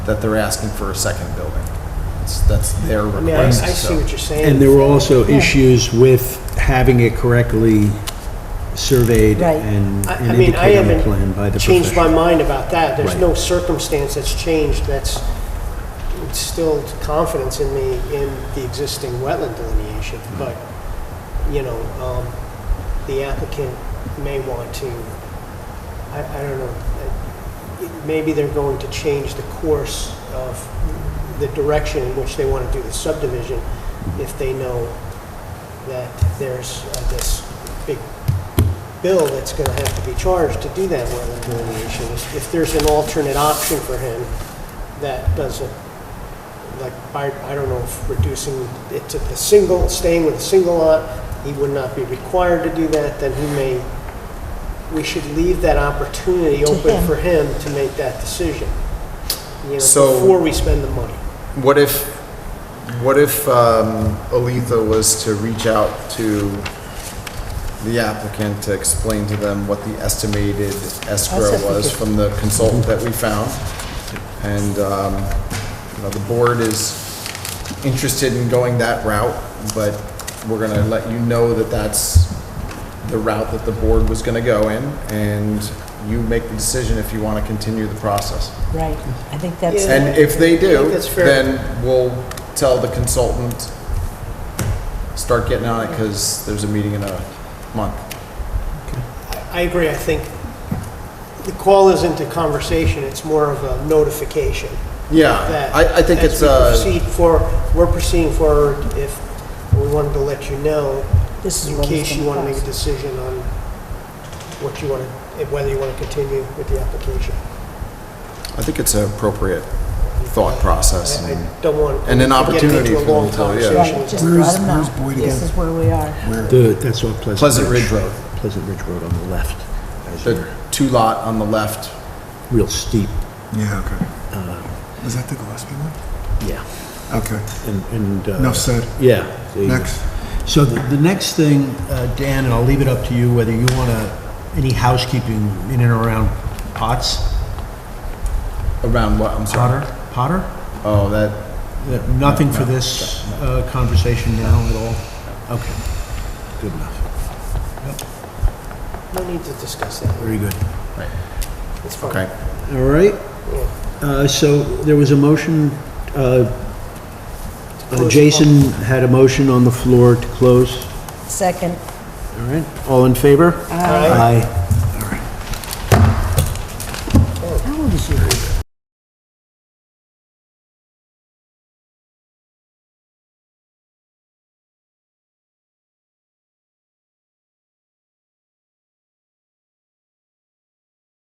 that they're asking for a second building. That's, that's their I mean, I I request, see so. what you're saying. And there were also issues with having it correctly surveyed Right. and I- and I mean, I indicated on the plan by haven't the changed my professional. mind about that. There's Right. no circumstance that's changed that's instilled confidence in me in the existing wetland delineation. Mm-hmm. But, you know, um, the applicant may want to, I, I don't know, uh, maybe they're going to change the course of the direction in which they want to do the subdivision if they know that there's uh, this big bill that's going to have to be charged to do that wetland delineation. If if there's an alternate option for him that doesn't, like, I, I don't know if reducing it to the single, staying with a single lot, he would not be required to do that, then he may, we should leave that opportunity To open him. for him to make that decision. You know, So- before we spend the money. What if, what if um, Aletha was to reach out to the applicant to explain to them what the estimated escrow That's what was we could- from the consultant that we found? And, um, you know, the board is interested in going that route, but we're gonna let you know that that's the route that the board was gonna go in, and you make the decision if you wanna continue the process. Right, I think that's, Yeah. And if they I do, think that's fair. then we'll tell the consultant, start getting on it, because there's a meeting in a month. I agree, I think the call isn't a conversation, it's more of a notification. Yeah, that I, I think it's, As uh, we proceed for, we're proceeding forward, if we wanted to let you know, this is in what it's case you want gonna to make a cost. decision on what you want to, whether you want to continue with the application. I think it's an appropriate thought process. I- and- I don't want. And an to get opportunity into a for them long to, yeah. conversation. Right, just Where is- let them where's know, Boyd this again? is where we are. The- That's on Pleasant. Pleasant Ridge Road. Pleasant Ridge Road on the left, as The you're two lot on the left, real steep, Yeah, okay. Is that the Gillespie one? yeah. Okay, And- And, uh, enough said. yeah. the- Next. So the the next thing, uh, Dan, and I'll leave it up to you, whether you want to, any housekeeping in and around Potts, around what, I'm sorry? Potter, Potter? Oh, that, That- Nothing for this uh, conversation now at all? Okay, good enough, No need to discuss that, very good. right, it's fine. okay. All right, Yeah. uh, so there was a motion, uh, uh, Close Jason had a motion on the floor to close. Second, All right, all in favor? Aye. Aye.